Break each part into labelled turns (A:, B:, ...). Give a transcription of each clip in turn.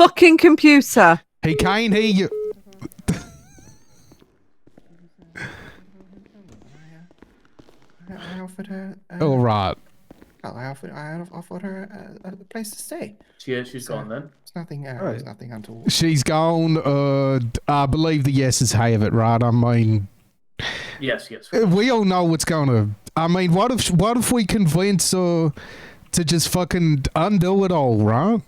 A: fucking computer.
B: He can't hear you.
C: I offered her. Uh,
B: All right.
C: I offered. I offered her uh, a, a place to stay.
D: She, uh, she's gone then.
C: It's nothing. Uh, It's
E: Right.
C: nothing until.
B: She's gone. Uh, I believe the yeses have it, right? I mean,
D: Yes, yes.
B: we all know what's gonna. I mean, what if what if we convince her to just fucking undo it all, right?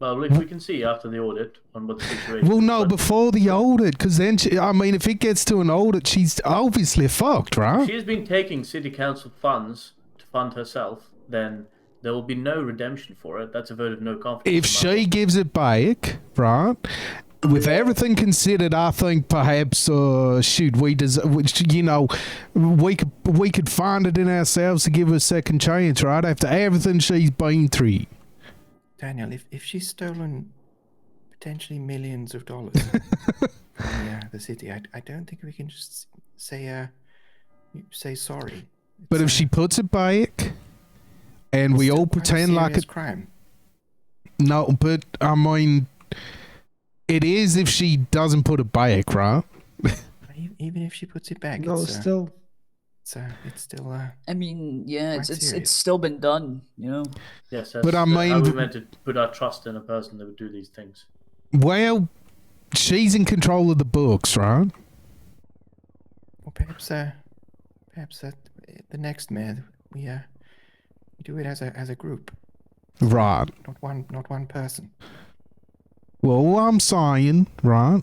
D: Well, if we can see after the audit on what the situation.
B: Well,
D: is,
B: no,
D: but
B: before the audit, because then she, I mean, if it gets to an audit, she's obviously fucked, right?
D: she has been taking city council funds to fund herself. Then there will be no redemption for it. That's a vote of no confidence.
B: If
D: on my
B: she gives it back, right? With everything considered, I think perhaps uh, shoot we des- which, you know we could we could find it in ourselves to give her a second chance, right? After everything she's been through.
C: Daniel, if, if she's stolen potentially millions of dollars from the, uh, the city, I, I don't think we can just s- say uh, you- say sorry.
B: But if
C: It's,
B: she puts it back, and we all pretend like
C: it's
B: it,
C: still quite a serious crime.
B: no, but I mean, it is if she doesn't put it back, right?
C: But e- Even if she puts it back,
E: No,
C: it's, uh,
E: still.
C: it's, uh, it's still. Uh,
F: I mean, yeah, it's
C: Quite
F: it's,
C: serious.
F: it's still been done, you know.
D: Yes, that's,
B: But I
D: that- how
B: mean-
D: we meant to put our trust in a person that would do these things.
B: Well, she's in control of the books, right?
C: or perhaps, uh, perhaps that the next mayor we uh, we do it as a as a group,
B: Right.
C: not one not one person.
B: Well, all I'm saying, right,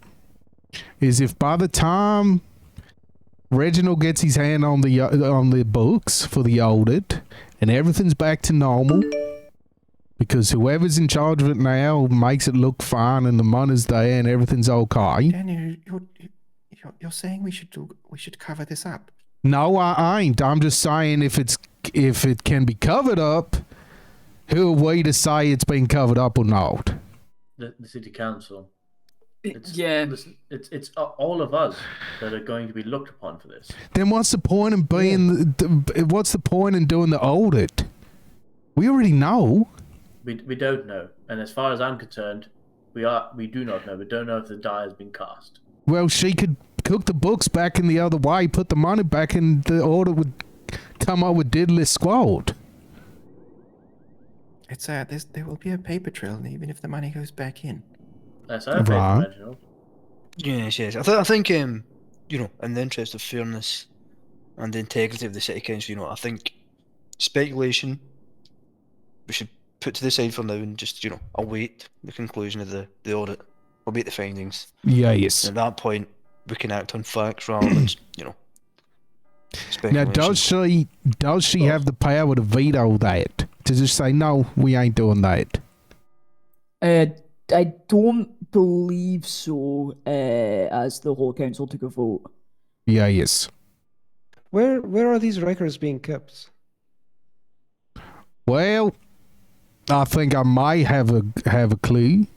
B: is if by the time Reginald gets his hand on the uh, on the books for the audit and everything's back to normal, because whoever's in charge of it now makes it look fine and the money's there and everything's okay.
C: Daniel, you're you're, you're saying we should do, we should cover this up.
B: No, I ain't. I'm just saying if it's if it can be covered up, who are we to say it's been covered up or not?
D: The, the city council. It's,
F: yeah,
D: listen, it's it's a- all of us that are going to be looked upon for this.
B: Then what's the point in being? th- what's the point in doing the audit? We already know.
D: We, we don't know, and as far as I'm concerned, we are we do not know. We don't know if the die has been cast.
B: Well, she could cook the books back in the other way, put the money back, and the audit would come up with diddly squad.
C: It's uh, there's, there will be a paper trail, even if the money goes back in.
D: That's our favorite,
B: Right.
D: Reginald.
E: Yes, yes. I, th- I think, um, you know, in the interest of fairness and the integrity of the city council, you know, I think speculation we should put to the side for now and just, you know, await the conclusion of the, the audit, await the findings.
B: Yes.
E: And at that point, we can act on facts rather than, you know,
B: Now,
E: speculation.
B: does she does she have the power to veto that? To just say no, we ain't doing that.
F: uh, I don't believe so. Uh, as the whole council took a vote.
B: Yeah, yes.
E: Where where are these records being kept?
B: Well, I think I might have a have a clue.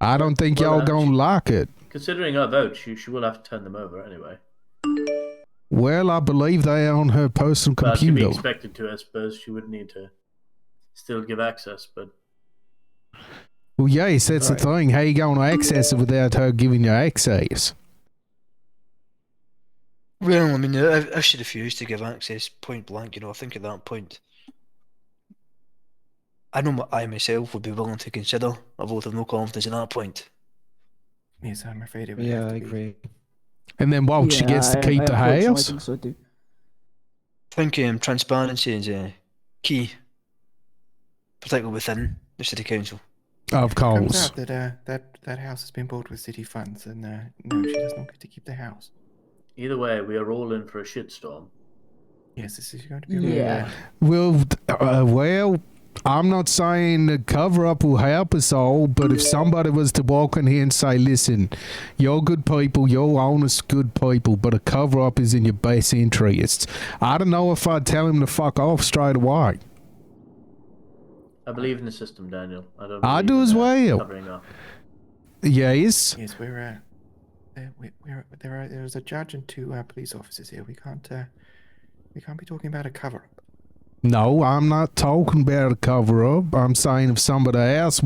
B: I don't think
D: Well,
B: y'all
D: uh,
B: gonna like it.
D: Considering our vote, she, she will have to turn them over anyway.
B: Well, I believe they are on her personal
D: But to be
B: computer.
D: expected to, I suppose she would need to still give access. But
B: Well, yes, that's the
E: Right.
B: thing. How you going to access it without her giving you access?
E: Well, I mean, if, if she refused to give access point blank, you know, I think at that point, I know my, I myself would be willing to consider a vote of no confidence at that point.
C: Yes, I'm afraid it would
E: Yeah,
C: have to
E: I
C: be.
E: agree.
B: And then what? Oh, she
F: Yeah,
B: gets to
F: I-
B: keep
F: I
B: the
F: unfortunately
B: house.
F: think so too.
E: I think um, transparency is uh, key, particularly within the city council.
B: Of
C: Comes
B: course.
C: out that uh, that that house has been bought with city funds, and uh, no, she does not get to keep the house.
D: either way, we are all in for a shitstorm.
C: Yes, this is going to be a real
F: Yeah.
C: bad-
B: Well, uh, well, I'm not saying the cover up will help us all, but if somebody was to walk in here and say, "Listen, you're good people, you're honest good people, but a cover up is in your best interests," I don't know if I'd tell him to fuck off straight away.
D: I believe in the system, Daniel. I don't.
B: I
D: believe
B: do
D: in,
B: as
D: uh,
B: well.
D: Covering up.
B: Yes.
C: Yes, we're uh, there, we, we're there are there is a judge and two uh, police officers here. We can't uh, we can't be talking about a cover up.
B: No, I'm not talking about a cover up. I'm saying if somebody else